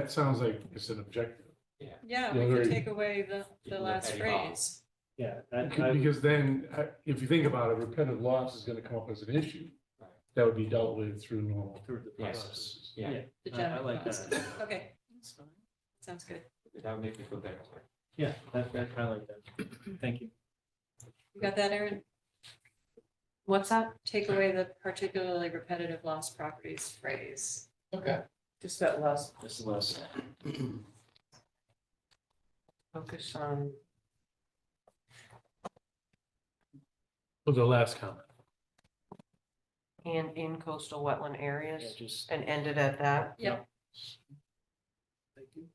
That sounds like it's an objective. Yeah, Yeah, we could very- take away the, You the can last look at it all. phrase. Yeah, that, Because- I, Because then, uh, if you think about it, repetitive loss is gonna come up as an issue. Right. That would be dealt with through normal through the Yes. process. Yeah. the I- I general like clause. that. Okay. that's fine. Sounds good. That would make me feel better. Yeah, that, that, I like that. Thank you. You got that, Erin? What's that? Take away the particularly repetitive lost properties phrase. Okay. Just that last This is less. focus on, Well, the last comment. and in coastal wetland areas, Just, and ended at that. thank you.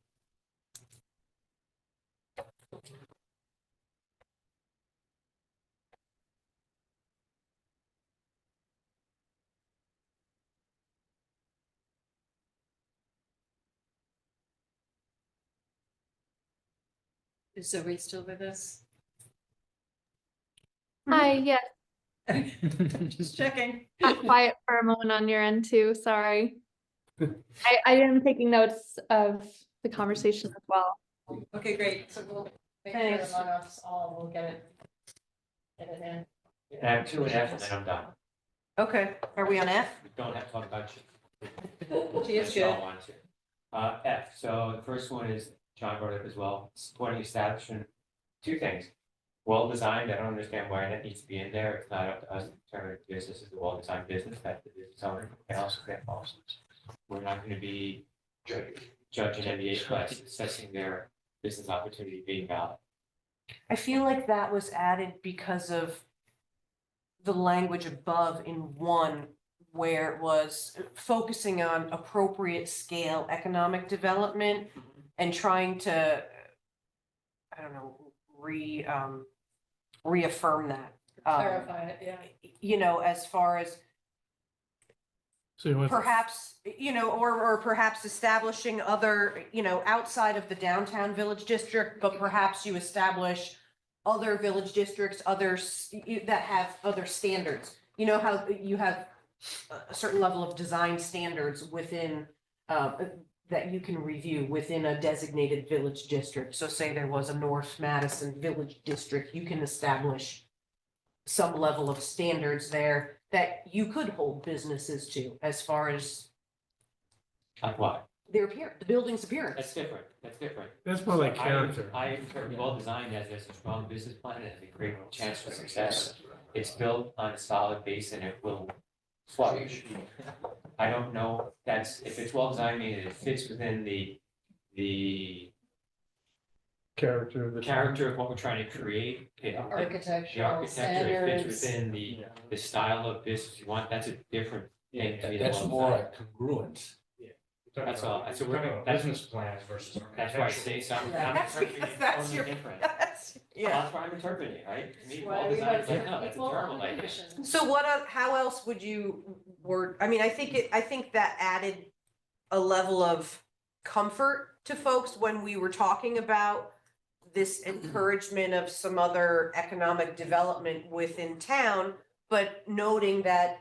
Is Zoe still with us? Hi, yeah, Just checking. got quiet for a moment on your end too, sorry. I, I am taking notes of the conversation as well. Okay, great. So we'll make sure Thanks. among us all, we'll get it. Get it in. Add two and F and then I'm done. Okay, are we on F? We Don't have to talk about you. She is That's all I good. wanted to. Uh, F, so the first one is, John brought it up as well, supporting establishment, two things. Well-designed, I don't understand why that needs to be in there, it's not up to us to determine if business is a well-designed business, that the business owner can also get policies. We're not gonna be ju- judging NBA by assessing their business opportunity being valid. I feel like that was added because of the language above in one where it was focusing on appropriate scale economic development and trying to, I don't know, re, um, reaffirm that. um, Clarify it, yeah. You know, as far as So you went. perhaps, you know, or, or perhaps establishing other, you know, outside of the downtown village district, but perhaps you establish other village districts, others that have other standards. You know how you have a certain level of design standards within, uh, that you can review within a designated village district. So say there was a North Madison Village District, you can establish some level of standards there that you could hold businesses to as far as Like what? their appear, the building's That's appearance. different, that's different. That's more like I- character. I interpret well-designed as there's a strong business plan and a great chance for success. It's built on a solid base and it will flourish. I don't know, if that's, if it's well-designed, meaning it fits within the, the Character of the. character of what we're trying to create. it- The Architectural architecture, it fits standards. within the, the style of business you want, that's a different thing to That- be That's more well-designed. like congruent. That's all. That's what We're we're- talking about that's- business plans versus. That's why I architectural. say something, I'm That's interpreting because it that's totally your- different. Yeah. That's why I'm interpreting it, right? To me, Why we well-designed, have is like, no, different that's a people terrible on the idea. commission. So what, el- how else would you word, I mean, I think it, I think that added a level of comfort to folks when we were talking about this encouragement of some other economic development within town, but noting that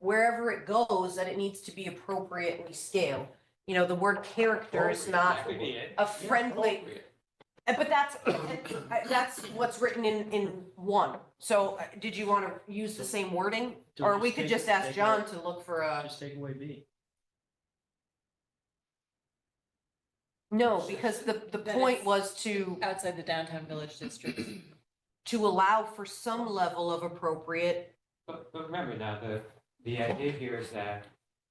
wherever it goes, that it needs to be appropriately scaled. You know, the word character is not That could be it. a friendly, Appropriate. Uh, but that's, uh, that's what's written in, in one. So uh, did you want to use the same wording? Don't Or we just could take- just ask take John away- to look for a, Just take away B. no, because the, the That point it's- was to, Outside the downtown village district. to allow for some level of appropriate. But, but remember now, the, the idea here is that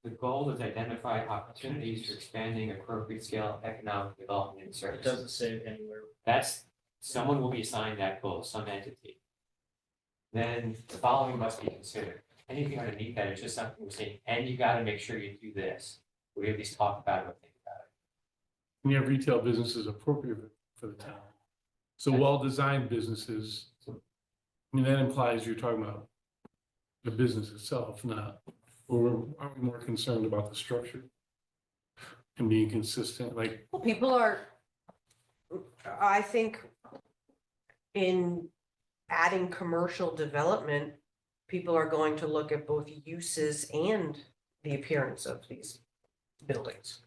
the goal is identify opportunities for expanding appropriate scale economic development and It services. doesn't say anywhere. That's, someone will be assigned that goal, some entity. Then the following must be considered. Anything underneath that is just something we're saying, and you gotta make sure you do this. We at least talk about it, or think about it. And you have retail businesses appropriate for the town. So well-designed businesses, I mean, that implies you're talking about the business itself, not, or are we more concerned about the structure? And being consistent, like, Well, people are, I think in adding commercial development, people are going to look at both uses and the appearance of these buildings.